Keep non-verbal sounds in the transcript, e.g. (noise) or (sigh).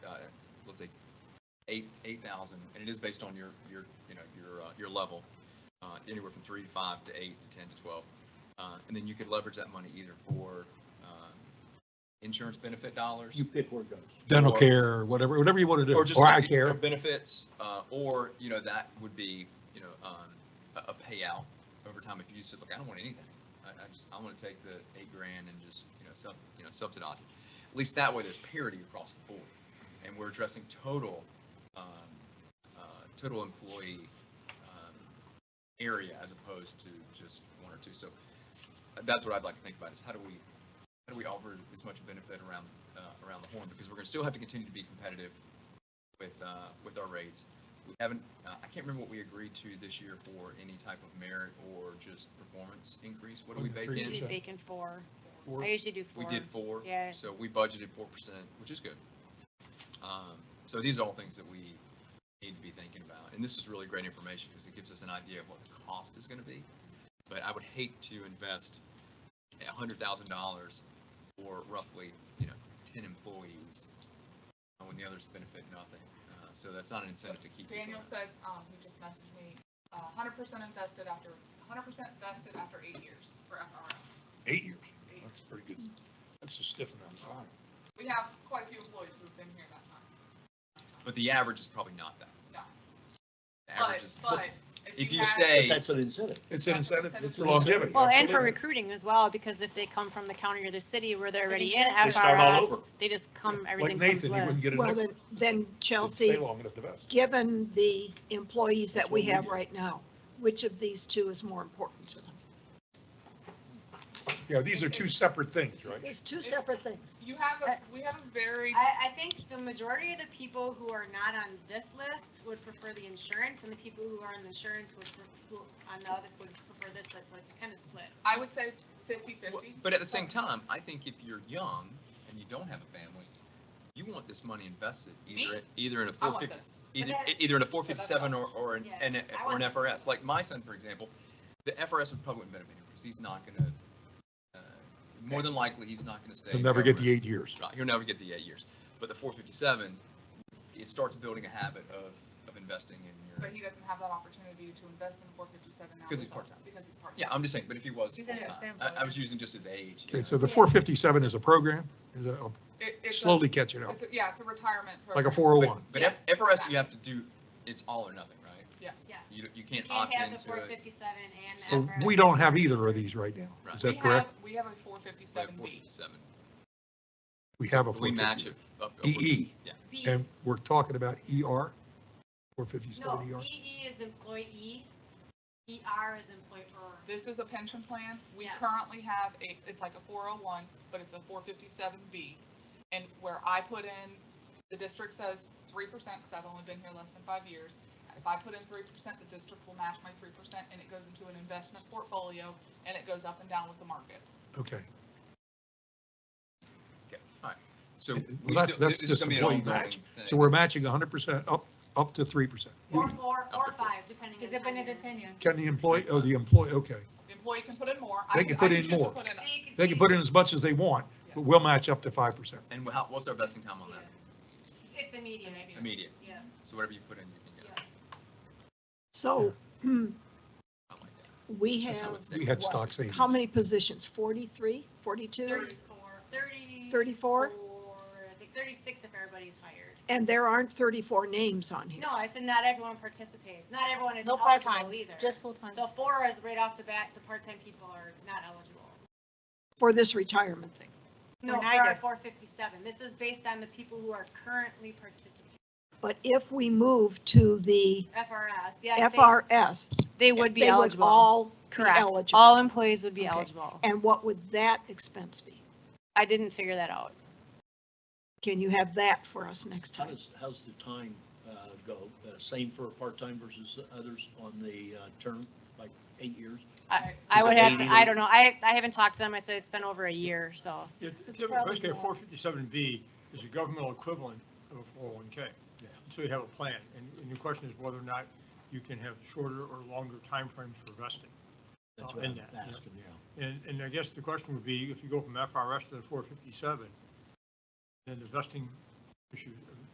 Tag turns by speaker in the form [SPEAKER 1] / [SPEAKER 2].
[SPEAKER 1] uh, let's say, eight, eight thousand, and it is based on your, your, you know, your, uh, your level, uh, anywhere from three to five to eight to ten to twelve. Uh, and then you could leverage that money either for, um, insurance benefit dollars.
[SPEAKER 2] You pick where it goes.
[SPEAKER 3] dental
[SPEAKER 1] Or-
[SPEAKER 3] care, or whatever, whatever you want to do,
[SPEAKER 1] Or just
[SPEAKER 3] or
[SPEAKER 1] like
[SPEAKER 3] I
[SPEAKER 1] the- their
[SPEAKER 3] care.
[SPEAKER 1] benefits, uh, or, you know, that would be, you know, um, a, a payout over time if you said, look, I don't want anything. I, I just, I want to take the eight grand and just, you know, sub, you know, subsidize it. At least that way there's parity across the board. And we're addressing total, um, uh, total employee, um, area as opposed to just one or two. So uh, that's what I'd like to think about is how do we, how do we offer as much benefit around, uh, around the horn? Because we're going to still have to continue to be competitive with, uh, with our rates. We haven't, uh, I can't remember what we agreed to this year for any type of merit or just performance increase. What do we
[SPEAKER 3] One to
[SPEAKER 1] bake
[SPEAKER 3] three
[SPEAKER 1] in?
[SPEAKER 3] percent.
[SPEAKER 4] Do bacon four.
[SPEAKER 3] Or-
[SPEAKER 4] I usually do
[SPEAKER 1] We
[SPEAKER 4] four.
[SPEAKER 1] did four.
[SPEAKER 4] Yeah.
[SPEAKER 1] So we budgeted four percent, which is good. Um, so these are all things that we need to be thinking about, and this is really great information because it gives us an idea of what the cost is gonna be. But I would hate to invest a hundred thousand dollars for roughly, you know, ten employees uh, when the others benefit nothing. Uh, so that's not an incentive to keep. these
[SPEAKER 5] Daniel
[SPEAKER 1] around.
[SPEAKER 5] said, um, he just messaged me, uh, hundred percent invested after, hundred percent invested after eight years for FRS.
[SPEAKER 2] Eight years.
[SPEAKER 5] Eight.
[SPEAKER 2] That's pretty good. That's a stiff amount of time.
[SPEAKER 5] We have quite a few employees who've been here that time.
[SPEAKER 1] But the average is probably not that.
[SPEAKER 5] No.
[SPEAKER 1] The average is,
[SPEAKER 5] But, but
[SPEAKER 1] (laughs) if you
[SPEAKER 5] had-
[SPEAKER 2] But
[SPEAKER 1] stay,
[SPEAKER 2] That's an incentive.
[SPEAKER 3] It's an incentive
[SPEAKER 5] It's
[SPEAKER 3] for
[SPEAKER 5] an
[SPEAKER 3] longevity.
[SPEAKER 4] Well, and for
[SPEAKER 3] absolutely.
[SPEAKER 4] recruiting as well, because if they come from the county or the city where they're already in
[SPEAKER 2] They start all
[SPEAKER 4] FRS,
[SPEAKER 2] over.
[SPEAKER 4] they just come,
[SPEAKER 3] Like
[SPEAKER 4] everything comes
[SPEAKER 3] Nathan, you wouldn't
[SPEAKER 4] with.
[SPEAKER 3] get
[SPEAKER 6] Well,
[SPEAKER 3] a,
[SPEAKER 6] then, then
[SPEAKER 3] stay
[SPEAKER 6] Chelsea,
[SPEAKER 3] long enough to vest.
[SPEAKER 6] given the employees that
[SPEAKER 2] That's
[SPEAKER 6] we
[SPEAKER 2] what we
[SPEAKER 6] have
[SPEAKER 2] do.
[SPEAKER 6] right now, which of these two is more important to them?
[SPEAKER 3] Yeah, these are two separate things, right?
[SPEAKER 6] It's two separate things.
[SPEAKER 5] You have a, we have a very,
[SPEAKER 4] I, I think the majority of the people who are not on this list would prefer the insurance and the people who are on the insurance would, pref- who on the other would prefer this list, so it's kind of split.
[SPEAKER 5] I would say fifty fifty.
[SPEAKER 1] But at the same time, I think if you're young and you don't have a family, you want this money invested either,
[SPEAKER 5] Me?
[SPEAKER 1] either in a
[SPEAKER 5] I
[SPEAKER 1] four
[SPEAKER 5] want
[SPEAKER 1] fifty,
[SPEAKER 5] this.
[SPEAKER 1] either,
[SPEAKER 4] But that-
[SPEAKER 1] either in a four fifty-seven or, or an,
[SPEAKER 4] Yeah,
[SPEAKER 1] an-
[SPEAKER 4] I
[SPEAKER 1] or an
[SPEAKER 4] want-
[SPEAKER 1] FRS. Like my son, for example, the FRS would probably benefit him because he's not gonna, uh, more than likely, he's not gonna stay.
[SPEAKER 3] You'll never get the
[SPEAKER 1] government.
[SPEAKER 3] eight years.
[SPEAKER 1] Right, he'll never get the eight years. But the four fifty-seven, it starts building a habit of, of investing in
[SPEAKER 5] But
[SPEAKER 1] your,
[SPEAKER 5] he doesn't have that opportunity to invest in four fifty-seven now.
[SPEAKER 1] Because he's
[SPEAKER 5] with us,
[SPEAKER 1] part-time.
[SPEAKER 5] Because he's
[SPEAKER 1] yeah,
[SPEAKER 5] part-time.
[SPEAKER 1] I'm just saying, but if he was,
[SPEAKER 4] He's an
[SPEAKER 1] full-time,
[SPEAKER 4] example,
[SPEAKER 1] I, I
[SPEAKER 4] yeah.
[SPEAKER 1] was using just his age. you
[SPEAKER 3] Okay,
[SPEAKER 1] know,
[SPEAKER 3] so the four fifty-seven is a program, is a-
[SPEAKER 5] It, it's a-
[SPEAKER 3] slowly catching up,
[SPEAKER 5] it's a- Yeah, it's a retirement
[SPEAKER 3] like
[SPEAKER 5] program.
[SPEAKER 3] a four oh one.
[SPEAKER 1] But F-
[SPEAKER 5] Yes,
[SPEAKER 1] FRS,
[SPEAKER 5] exactly.
[SPEAKER 1] you have to do, it's all or nothing, right?
[SPEAKER 5] Yes.
[SPEAKER 4] Yes.
[SPEAKER 1] You, you
[SPEAKER 4] You
[SPEAKER 1] can't
[SPEAKER 4] can't
[SPEAKER 1] opt
[SPEAKER 4] have the
[SPEAKER 1] into
[SPEAKER 4] four
[SPEAKER 1] it.
[SPEAKER 4] fifty-seven and
[SPEAKER 3] So
[SPEAKER 4] the FRS.
[SPEAKER 3] we don't have either of these right now.
[SPEAKER 1] Right.
[SPEAKER 3] Is
[SPEAKER 5] We
[SPEAKER 3] that
[SPEAKER 5] have,
[SPEAKER 3] correct?
[SPEAKER 5] we have a four
[SPEAKER 1] Like
[SPEAKER 5] fifty-seven B.
[SPEAKER 1] 47.
[SPEAKER 3] We have a
[SPEAKER 1] But We
[SPEAKER 3] four
[SPEAKER 1] match
[SPEAKER 3] fifty. E.
[SPEAKER 1] it up. up-
[SPEAKER 3] EE.
[SPEAKER 1] Yeah.
[SPEAKER 4] B-
[SPEAKER 3] And we're talking about ER, four
[SPEAKER 4] No,
[SPEAKER 3] fifty-seven ER.
[SPEAKER 4] EE is employee, ER is employer.
[SPEAKER 5] This is a pension plan. We
[SPEAKER 4] Yes.
[SPEAKER 5] currently have a, it's like a four oh one, but it's a four fifty-seven B. And where I put in, the district says three percent, because I've only been here less than five years. If I put in three percent, the district will match my three percent, and it goes into an investment portfolio, and it goes up and down with the market.
[SPEAKER 3] Okay.
[SPEAKER 1] So
[SPEAKER 3] It-
[SPEAKER 1] we
[SPEAKER 3] that-
[SPEAKER 1] still,
[SPEAKER 3] that's
[SPEAKER 1] this is
[SPEAKER 3] just
[SPEAKER 1] going to be an
[SPEAKER 3] employee
[SPEAKER 1] ongoing
[SPEAKER 3] match.
[SPEAKER 1] thing.
[SPEAKER 3] So we're matching hundred percent up, up to three percent.
[SPEAKER 4] Or four,
[SPEAKER 1] to
[SPEAKER 4] or
[SPEAKER 1] four.
[SPEAKER 4] five, depending on. tenure.
[SPEAKER 3] Can the employee, oh, the employee, okay.
[SPEAKER 5] The employee can put in more. I
[SPEAKER 3] They can put
[SPEAKER 5] I
[SPEAKER 3] in
[SPEAKER 5] choose to
[SPEAKER 3] more.
[SPEAKER 5] put in-
[SPEAKER 4] So you
[SPEAKER 3] They can
[SPEAKER 4] see-
[SPEAKER 3] put in as much as they want, but we'll match up to five percent.
[SPEAKER 1] And how, what's our vesting time on
[SPEAKER 4] Yeah.
[SPEAKER 1] that?
[SPEAKER 4] It's immediate,
[SPEAKER 5] Immediate.
[SPEAKER 1] Immediate.
[SPEAKER 4] yeah,
[SPEAKER 1] So whatever you put in, you can
[SPEAKER 4] yeah.
[SPEAKER 1] get.
[SPEAKER 6] So hmm,
[SPEAKER 1] I like that.
[SPEAKER 6] we
[SPEAKER 1] That's how
[SPEAKER 6] have,
[SPEAKER 1] it's
[SPEAKER 3] We
[SPEAKER 1] done.
[SPEAKER 3] had stock savings.
[SPEAKER 6] how many positions? 43, 42?
[SPEAKER 4] Thirty-four, thirty.
[SPEAKER 6] 34?
[SPEAKER 4] I think thirty-six if everybody's hired.
[SPEAKER 6] And there aren't 34 names on here.
[SPEAKER 4] No, I said not everyone participates, not everyone is
[SPEAKER 7] No part-time,
[SPEAKER 4] eligible either.
[SPEAKER 7] just full-time.
[SPEAKER 4] So four is right off the bat, the part-time people are not eligible.
[SPEAKER 6] For this retirement thing.
[SPEAKER 4] No,
[SPEAKER 7] Or
[SPEAKER 4] for
[SPEAKER 7] neither.
[SPEAKER 4] our four fifty-seven, this is based on the people who are currently participating,
[SPEAKER 6] But if we move to the
[SPEAKER 4] FRS, yes. they-
[SPEAKER 6] FRS,
[SPEAKER 4] They
[SPEAKER 6] they would all be
[SPEAKER 7] Correct.
[SPEAKER 6] eligible.
[SPEAKER 7] All employees would be
[SPEAKER 6] Okay.
[SPEAKER 7] eligible.
[SPEAKER 6] And what would that expense be?
[SPEAKER 7] I didn't figure that out.
[SPEAKER 6] Can you have that for us next
[SPEAKER 8] How
[SPEAKER 6] time?
[SPEAKER 8] does, how's the time uh, go? Uh, Same for part-time versus others on the uh, term, like eight years?
[SPEAKER 5] I-
[SPEAKER 7] I
[SPEAKER 8] Is it
[SPEAKER 7] would have,
[SPEAKER 8] 80?
[SPEAKER 7] I don't know. I, I haven't talked to them. I said it's been over a year, so.
[SPEAKER 9] Yeah, it's a-
[SPEAKER 6] Probably
[SPEAKER 9] Basically, a
[SPEAKER 6] more.
[SPEAKER 9] four fifty-seven B is a governmental equivalent of a four oh one K.
[SPEAKER 8] Yeah.
[SPEAKER 9] So you have a plan, and, and the question is whether or not you can have shorter or longer timeframes for vesting.
[SPEAKER 8] That's
[SPEAKER 9] Oh,
[SPEAKER 8] what
[SPEAKER 9] in
[SPEAKER 8] I'm
[SPEAKER 9] that, yeah.
[SPEAKER 8] asking, yeah.
[SPEAKER 9] And, and I guess the question would be, if you go from FRS to the four fifty-seven, then the vesting issue,